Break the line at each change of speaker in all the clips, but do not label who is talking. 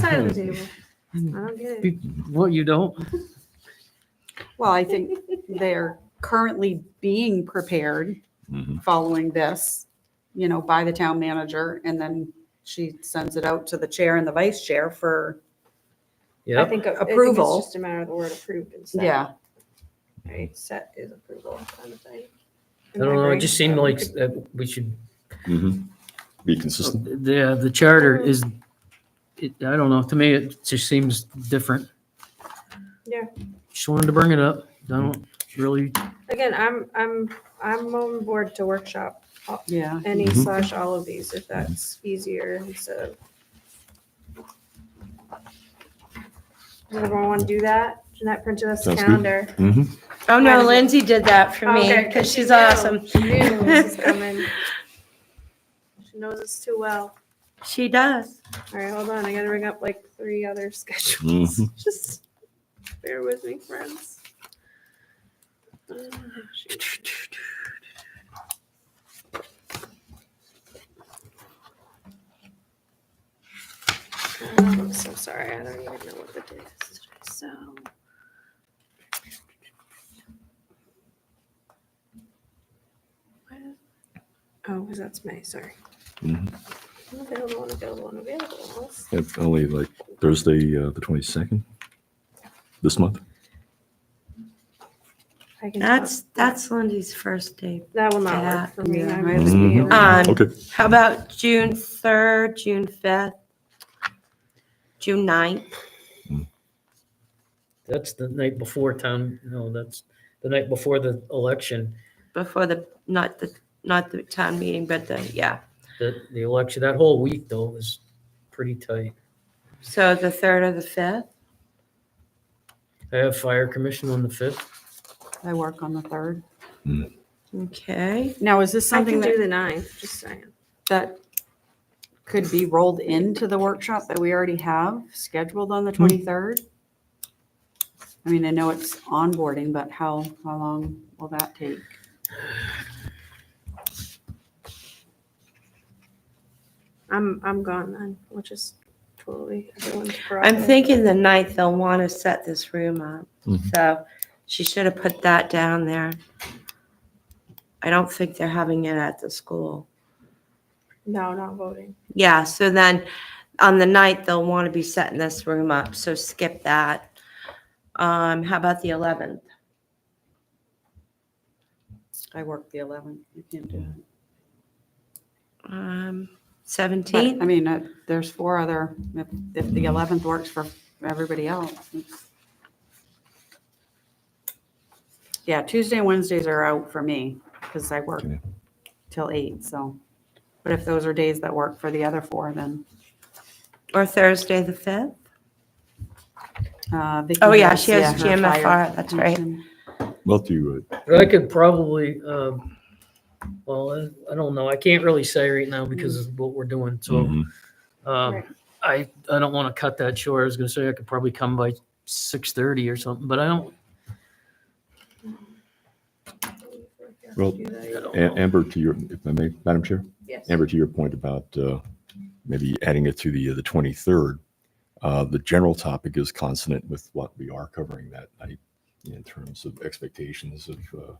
side
Hmm.
of the table.
Hmm.
I don't get it.
Be- What, you don't?
Well, I think they're currently being prepared
Mhm.
following this, you know, by the town manager. And then she sends it out to the chair and the vice chair for,
I
Yep.
think a- I think it's
Approval.
Just a matter of the word approved and set.
yeah.
Right, set is approval kind of thing.
I don't know, it just seemed like uh, we should,
Mhm. Be consistent.
Oh, the, uh, the charter is, it, I don't know, to me, it just seems different.
Yeah.
Just wanted to bring it up. I don't really,
Again, I'm, I'm, I'm on board to workshop
Yeah.
any
Mhm.
slash all of these if that's easier instead of. Does everyone want to do that? Jeanette printed us a
Sounds good.
calendar.
Mhm.
Oh no,
Mine-
Lindsay did that for me
Okay,
because
she
she's
knew.
awesome.
She knew this was coming. She knows us too well.
She does.
All right, hold on. I gotta bring up like three other schedules.
Mhm.
Just bear with me, friends. Uh, shoot. Um, I'm so sorry. I don't even know what the date is today. So. Where- Oh, because that's May. Sorry.
Mhm.
Unavailable, unavailable, unavailable. Let's-
It's Only like Thursday, uh, the 22nd this month.
I can
That's that's Lindsay's first date.
That will not
Yeah.
work for me.
Yeah.
I
Right.
must be
Mhm.
away.
Um,
Okay.
How about June third, June fifth, June 9th?
that's the night before town, no, that's the night before the election,
before the not the not the town meeting, but the yeah.
the, the election, that whole week though was pretty tight.
So the third or the fifth.
I have fire commission on the fifth.
I work on the third.
Okay.
Now, is this
I
something
can do
that,
the ninth, just saying.
that could be rolled into the workshop that we already have scheduled on the 23rd? I mean, I know it's onboarding, but how, how long will that take?
I'm, I'm gone then, which is totally everyone's prerogative.
I'm thinking the ninth they'll want to set this room up.
Mhm.
So she should have put that down there. I don't think they're having it at the school.
No, not voting.
Yeah, so then on the ninth they'll want to be setting this room up. So skip that. Um, how about the eleventh?
I work the 11th. You can't do it.
Um,
But,
seventeenth?
I mean, uh, there's four other, if, if the 11th works for everybody else. it's- Yeah, Tuesday and Wednesdays are out for me because I work
Yeah.
till eight, so. But if those are days that work for the other four, then.
Or Thursday the fifth?
uh, Vicky
Oh, yeah, she has
her
GMFR,
fire
that's right.
commission.
Well, do uh,
I could probably, um, well, I- I don't know. I can't really say right now because of what we're doing. So,
mhm.
um,
Right.
I, I don't want to cut that short. I was gonna say I could probably come by six thirty or something, but I don't,
Well,
I don't
A-
know.
Amber, to your, if I may, Madam Chair?
Yes.
Amber, to your point about uh, maybe adding it to the, the 23rd, uh, the general topic is consonant with what we are covering that night in terms of expectations of, uh,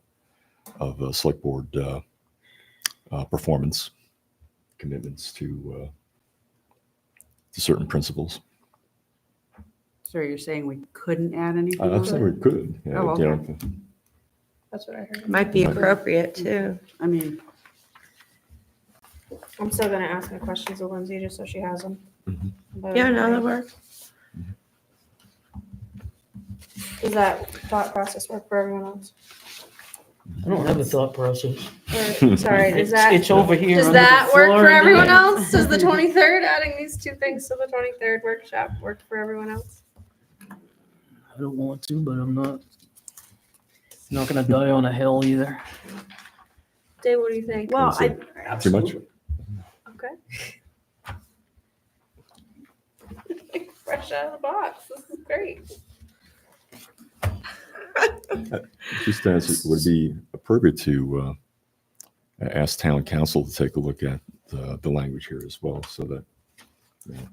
of uh, select board uh, uh, performance, commitments to, uh, to certain principles.
So you're saying we couldn't add anything?
I
Uh,
on
I'd say
it?
we could. yeah,
Oh,
you know,
That's what I heard.
Might be
Might.
appropriate too.
I mean,
I'm still gonna ask my questions of Lindsay just so she has them.
Mhm.
But-
Yeah, no, that works.
Does that thought process work for everyone else?
I don't have a thought process.
Or- Sorry, does
It's,
that,
it's over here.
does
under the
that work
floor
for
and
everyone
then-
else? Does the twenty-third, adding these two things to the twenty-third workshop work for everyone else?
I don't want to, but I'm not, not gonna die on a hill either.
Dave, what do you think?
Well, I- Too much?
Okay. Fresh out of the box. This is great.
Just as it would be appropriate to uh, ask town council to take a look at uh, the language here as well, so that you know,